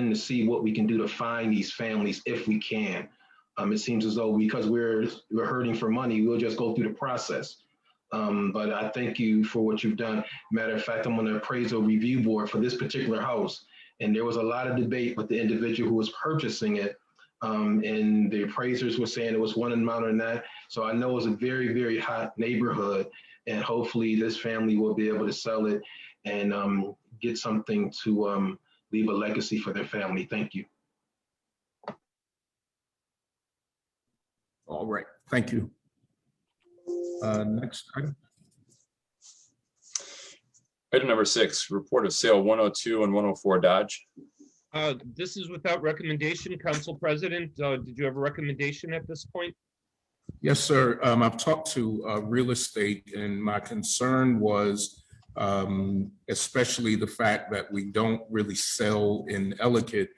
to see what we can do to find these families if we can. Um, it seems as though because we're, we're hurting for money, we'll just go through the process. Um, but I thank you for what you've done. Matter of fact, I'm on the appraisal review board for this particular house. And there was a lot of debate with the individual who was purchasing it. Um, and the appraisers were saying it was one amount and that. So I know it's a very, very hot neighborhood. And hopefully this family will be able to sell it and um, get something to um, leave a legacy for their family. Thank you. All right, thank you. Uh, Next, item. Item number six, report of sale one oh two and one oh four Dodge. Uh, This is without recommendation, Council President. Uh, Did you have a recommendation at this point? yes, sir. Um, I've talked to uh, real estate and my concern was um, especially the fact that we don't really sell in Ellicott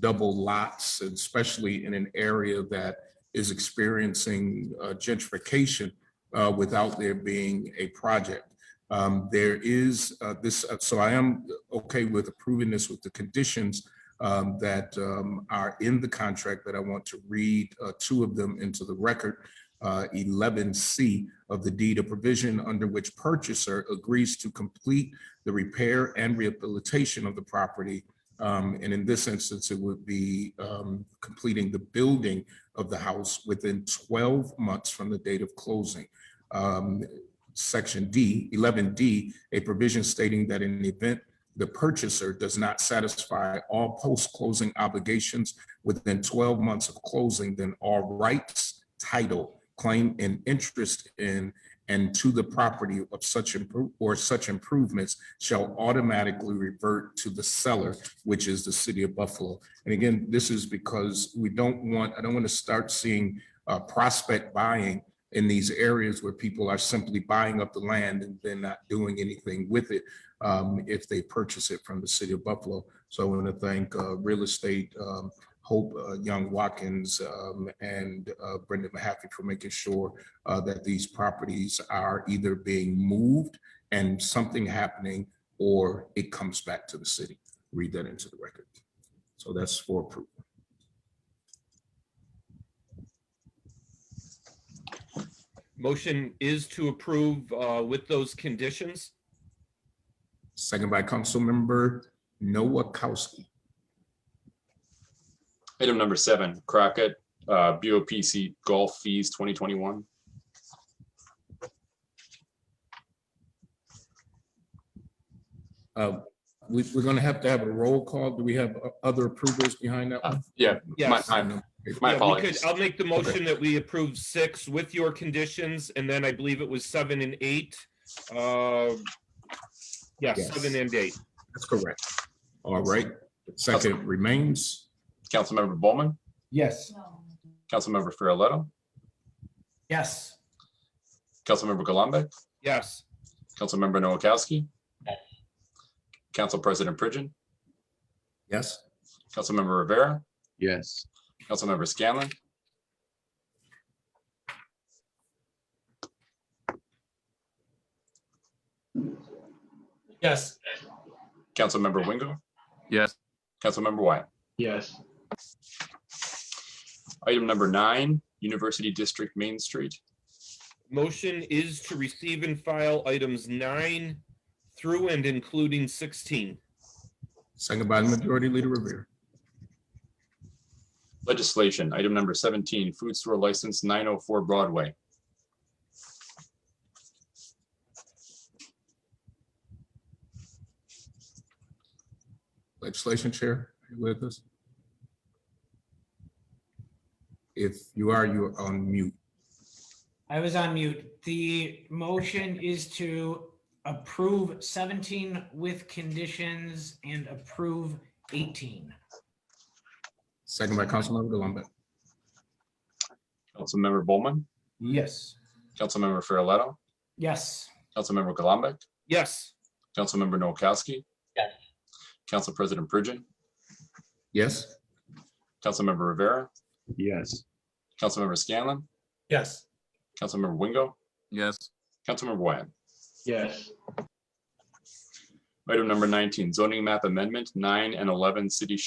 double lots, and especially in an area that is experiencing uh, gentrification uh, without there being a project. Um, There is uh, this, so I am okay with approving this with the conditions um, that um, are in the contract that I want to read uh, two of them into the record. Uh, 11C of the deed, a provision under which purchaser agrees to complete the repair and rehabilitation of the property. Um, And in this instance, it would be um, completing the building of the house within 12 months from the date of closing. Um, Section D, 11D, a provision stating that in the event the purchaser does not satisfy all post-closing obligations within 12 months of closing, then all rights, title, claim, and interest in and to the property of such impro- or such improvements shall automatically revert to the seller, which is the city of Buffalo. And again, this is because we don't want, I don't want to start seeing uh, prospect buying in these areas where people are simply buying up the land and then not doing anything with it um, if they purchase it from the city of Buffalo. So I want to thank uh, Real Estate um, Hope uh, Young Watkins um, and uh, Brenda Mahaffey for making sure uh, that these properties are either being moved and something happening or it comes back to the city. Read that into the record. So that's for approval. Motion is to approve uh, with those conditions. Second by Councilmember Noakowski. Item number seven, Crockett, uh, BOPC golf fees twenty twenty-one. Uh, We, we're going to have to have a roll call. Do we have o- other approvers behind that one? Yeah, my, Yes. my, Yeah, my we apologies. could- I'll make the motion that we approve six with your conditions, and then I believe it was seven and eight. Uh, Yes, Yes. seven and eight. That's correct. All right, second remains. Councilmember Bowman, Yes. Councilmember Farrelletto, Yes. Councilmember Gullumbeck, Yes. Councilmember Noakowski, Council President Pridgen, Yes. Councilmember Rivera, Yes. Councilmember Scanlon, Yes. Councilmember Wingo, Yes. Councilmember Wyatt. Yes, Item number nine, University District Main Street. Motion is to receive and file items nine through and including 16. Second by Majority Leader Rivera. Legislation, item number seventeen, food store license nine oh four Broadway. Legislation Chair, are you with us? If you are, you are on mute. I was on mute. The motion is to approve seventeen with conditions and approve eighteen. Second by Councilmember Gullumbeck. Councilmember Bowman, Yes. Councilmember Farrelletto, Yes. Councilmember Gullumbeck, Yes. Councilmember Noakowski. Yes. Council President Pridgen, Yes, Councilmember Rivera, Yes. Councilmember Scanlon, Yes. Councilmember Wingo, Yes. Councilmember Wyatt. yes, Item number nineteen, zoning map amendment nine and eleven city